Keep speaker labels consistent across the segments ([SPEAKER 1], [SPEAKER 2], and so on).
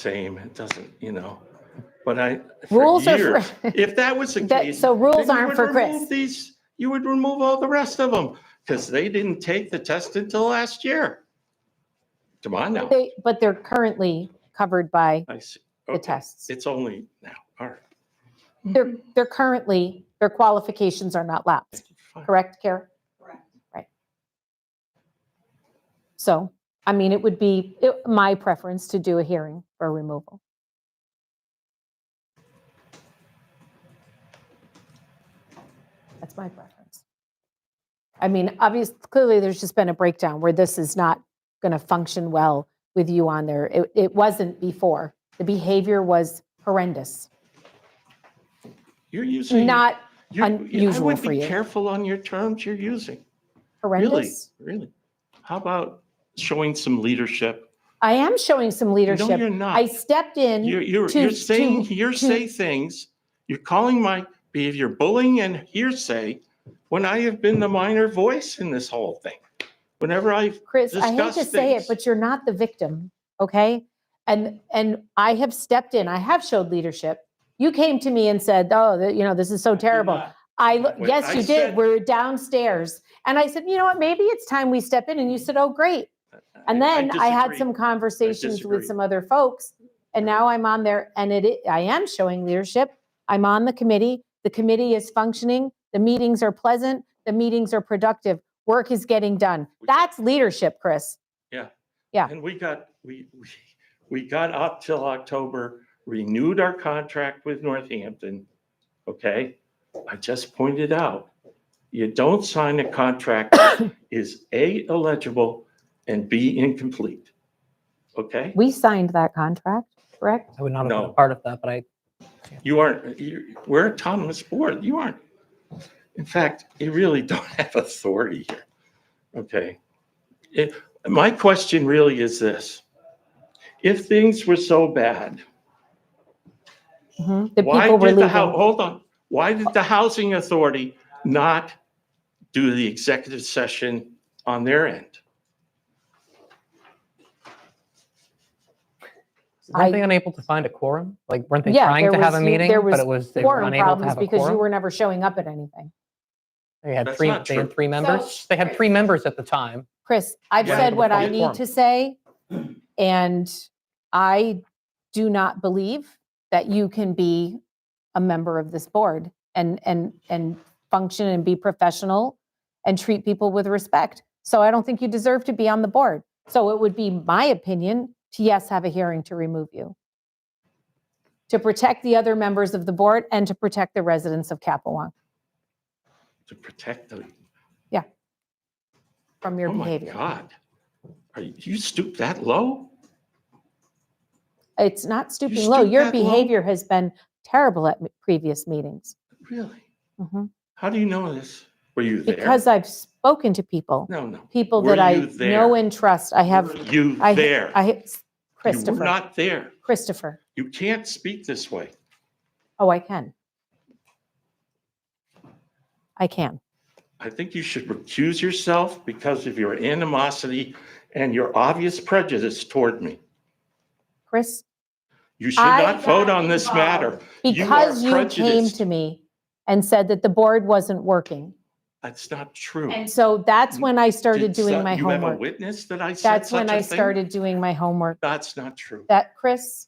[SPEAKER 1] same. It doesn't, you know, but I. for
[SPEAKER 2] Rules are for-
[SPEAKER 1] years, If that was the
[SPEAKER 2] That-
[SPEAKER 1] case.
[SPEAKER 2] so
[SPEAKER 1] then
[SPEAKER 2] rules
[SPEAKER 1] you
[SPEAKER 2] aren't
[SPEAKER 1] would
[SPEAKER 2] for
[SPEAKER 1] remove
[SPEAKER 2] Chris.
[SPEAKER 1] These, you would remove all the rest of them because they didn't take the test until last year. Come on now.
[SPEAKER 2] They, but they're currently covered by
[SPEAKER 1] I see.
[SPEAKER 2] the
[SPEAKER 1] Okay.
[SPEAKER 2] tests.
[SPEAKER 1] It's only now. All right.
[SPEAKER 2] They're, they're currently, their qualifications are not lapsed,
[SPEAKER 1] Fine.
[SPEAKER 2] correct, Kara?
[SPEAKER 3] Correct.
[SPEAKER 2] Right. So, I mean, it would be it- my preference to do a hearing for removal. That's my preference. I mean, obviously, clearly, there's just been a breakdown where this is not going to function well with you on there. It, it wasn't before. The behavior was horrendous,
[SPEAKER 1] You're using.
[SPEAKER 2] not
[SPEAKER 1] you-
[SPEAKER 2] unusual
[SPEAKER 1] I would
[SPEAKER 2] for
[SPEAKER 1] be
[SPEAKER 2] you.
[SPEAKER 1] Careful on your terms you're using. Really,
[SPEAKER 2] horrendous.
[SPEAKER 1] really. How about showing some leadership?
[SPEAKER 2] I am showing some
[SPEAKER 1] No, you're
[SPEAKER 2] leadership. I
[SPEAKER 1] not.
[SPEAKER 2] stepped in.
[SPEAKER 1] You're, you're,
[SPEAKER 2] to-
[SPEAKER 1] you're saying
[SPEAKER 2] to-
[SPEAKER 1] hearsay things. You're calling my behavior bullying and hearsay when I have been the minor voice in this whole thing. Whenever I've,
[SPEAKER 2] Chris, I hate to
[SPEAKER 1] discuss
[SPEAKER 2] say it,
[SPEAKER 1] things.
[SPEAKER 2] but you're not the victim, okay? And and I have stepped in. I have showed leadership. You came to me and said, "Oh, the- you know, this is so terrible."
[SPEAKER 1] not.
[SPEAKER 2] I lo-
[SPEAKER 1] When
[SPEAKER 2] yes,
[SPEAKER 1] I
[SPEAKER 2] you did.
[SPEAKER 1] said-
[SPEAKER 2] We're downstairs, and I said, "You know what? Maybe it's time we step in." And you said, "Oh, great." And then I had
[SPEAKER 1] disagree.
[SPEAKER 2] some conversations with
[SPEAKER 1] disagree.
[SPEAKER 2] some other folks, and now I'm on there, and it i- I am showing leadership. I'm on the committee. The committee is functioning. The meetings are pleasant. The meetings are productive. Work is getting done.
[SPEAKER 1] We-
[SPEAKER 2] That's leadership, Chris. yeah.
[SPEAKER 1] And we got, we, we, we got up till October, renewed our contract with Northampton. Okay? I just pointed out, you don't sign a contract that is A, illegible, and B, incomplete. Okay?
[SPEAKER 2] We signed that contract, correct?
[SPEAKER 4] I would not have been
[SPEAKER 1] No.
[SPEAKER 4] a part of that, but I,
[SPEAKER 1] You aren't, you, we're a autonomous board. You aren't. In fact, you really don't have authority here. Okay. It- my question really is this. If things were so bad,
[SPEAKER 2] Mhm. The
[SPEAKER 1] why
[SPEAKER 2] people were
[SPEAKER 1] did the hou-
[SPEAKER 2] leaving.
[SPEAKER 1] Hold on. Why did the housing authority not do the executive session on their end?
[SPEAKER 2] I-
[SPEAKER 4] weren't they unable to find a quorum? Like, weren't they
[SPEAKER 2] Yeah,
[SPEAKER 4] trying
[SPEAKER 2] there
[SPEAKER 4] to have a
[SPEAKER 2] was- you-
[SPEAKER 4] meeting,
[SPEAKER 2] there
[SPEAKER 4] but
[SPEAKER 2] was
[SPEAKER 4] it was, they were
[SPEAKER 2] Quorum
[SPEAKER 4] unable to
[SPEAKER 2] problems
[SPEAKER 4] have a
[SPEAKER 2] because you
[SPEAKER 4] quorum?
[SPEAKER 2] were never showing up at anything.
[SPEAKER 4] They had
[SPEAKER 1] That's
[SPEAKER 4] three,
[SPEAKER 1] not
[SPEAKER 4] they had
[SPEAKER 1] true.
[SPEAKER 4] three members. They had three members at the time.
[SPEAKER 2] Chris, I've
[SPEAKER 1] Yeah,
[SPEAKER 2] said
[SPEAKER 4] but
[SPEAKER 2] what I
[SPEAKER 4] it's
[SPEAKER 2] need
[SPEAKER 4] quorum.
[SPEAKER 2] to say, and I do not believe that you can be a member of this board and, and, and function and be professional and treat people with respect. So I don't think you deserve to be on the board. So it would be my opinion to yes, have a hearing to remove you. To protect the other members of the board and to protect the residents of Capewalk
[SPEAKER 1] To protect the,
[SPEAKER 2] from your
[SPEAKER 1] oh my
[SPEAKER 2] behavior.
[SPEAKER 1] God. Are you you stoop that low?
[SPEAKER 2] It's not stooping low.
[SPEAKER 1] stoop
[SPEAKER 2] Your
[SPEAKER 1] that low?
[SPEAKER 2] behavior has been terrible at m- previous meetings.
[SPEAKER 1] Really?
[SPEAKER 2] Mhm.
[SPEAKER 1] How do you know this? Were you there?
[SPEAKER 2] Because I've spoken to people,
[SPEAKER 1] No, no.
[SPEAKER 2] people
[SPEAKER 1] Were
[SPEAKER 2] that I
[SPEAKER 1] you
[SPEAKER 2] know
[SPEAKER 1] there?
[SPEAKER 2] and trust. I have,
[SPEAKER 1] Were You
[SPEAKER 2] I,
[SPEAKER 1] there.
[SPEAKER 2] I,
[SPEAKER 1] You were
[SPEAKER 2] Christopher,
[SPEAKER 1] not there.
[SPEAKER 2] Christopher.
[SPEAKER 1] You can't speak this way.
[SPEAKER 2] Oh, I can. I can.
[SPEAKER 1] I think you should recuse yourself because of your animosity and your obvious prejudice toward me.
[SPEAKER 2] Chris,
[SPEAKER 1] You should
[SPEAKER 2] I
[SPEAKER 1] not vote on this matter. You are
[SPEAKER 2] because you came
[SPEAKER 1] prejudiced.
[SPEAKER 2] to me and said that the board wasn't working.
[SPEAKER 1] That's not true.
[SPEAKER 2] And so that's when I started
[SPEAKER 1] Did so-
[SPEAKER 2] doing my
[SPEAKER 1] You have a
[SPEAKER 2] homework.
[SPEAKER 1] witness that I said
[SPEAKER 2] That's
[SPEAKER 1] such
[SPEAKER 2] when
[SPEAKER 1] a
[SPEAKER 2] I
[SPEAKER 1] thing?
[SPEAKER 2] started doing my homework.
[SPEAKER 1] That's not true.
[SPEAKER 2] That, Chris,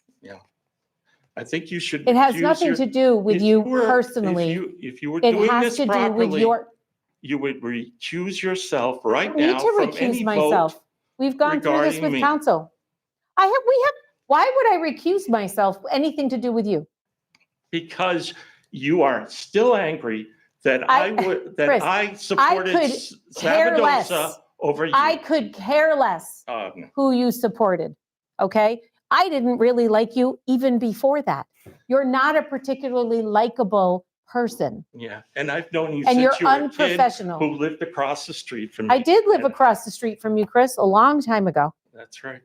[SPEAKER 1] I think you should.
[SPEAKER 2] It has
[SPEAKER 1] recuse
[SPEAKER 2] nothing
[SPEAKER 1] your-
[SPEAKER 2] to do with
[SPEAKER 1] if
[SPEAKER 2] you
[SPEAKER 1] were- if
[SPEAKER 2] personally.
[SPEAKER 1] you- If you were
[SPEAKER 2] It
[SPEAKER 1] doing
[SPEAKER 2] has
[SPEAKER 1] this
[SPEAKER 2] to do with
[SPEAKER 1] properly,
[SPEAKER 2] your,
[SPEAKER 1] you would recuse yourself
[SPEAKER 2] I
[SPEAKER 1] right
[SPEAKER 2] don't need
[SPEAKER 1] now
[SPEAKER 2] to
[SPEAKER 1] from
[SPEAKER 2] recuse
[SPEAKER 1] any vote.
[SPEAKER 2] myself. We've gone through this
[SPEAKER 1] regarding
[SPEAKER 2] with
[SPEAKER 1] me.
[SPEAKER 2] council. I have, we have, why would I recuse myself? Anything to do with you?
[SPEAKER 1] Because you are still angry that
[SPEAKER 2] I-
[SPEAKER 1] I would, that
[SPEAKER 2] Chris,
[SPEAKER 1] I supported
[SPEAKER 2] could
[SPEAKER 1] S-
[SPEAKER 2] care less.
[SPEAKER 1] Savadosa over you.
[SPEAKER 2] I could care less
[SPEAKER 1] Um,
[SPEAKER 2] who you supported, okay? I didn't really like you even before that. You're not a particularly likable person
[SPEAKER 1] Yeah, and I've known you
[SPEAKER 2] and you're
[SPEAKER 1] since you were a kid who
[SPEAKER 2] unprofessional.
[SPEAKER 1] lived across the street from me.
[SPEAKER 2] I did live
[SPEAKER 1] and-
[SPEAKER 2] across the street from you, Chris, a long time ago,
[SPEAKER 1] That's right.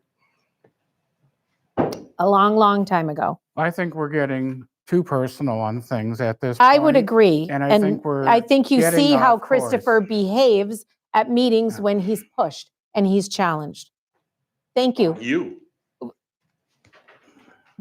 [SPEAKER 2] a long, long time ago.
[SPEAKER 5] I think we're getting too personal on things at this.
[SPEAKER 2] I would
[SPEAKER 5] point,
[SPEAKER 2] agree.
[SPEAKER 5] And I think we're.
[SPEAKER 2] I think you
[SPEAKER 5] getting
[SPEAKER 2] see how
[SPEAKER 5] off course.
[SPEAKER 2] Christopher behaves at meetings when he's pushed and he's challenged. Thank you.
[SPEAKER 1] You,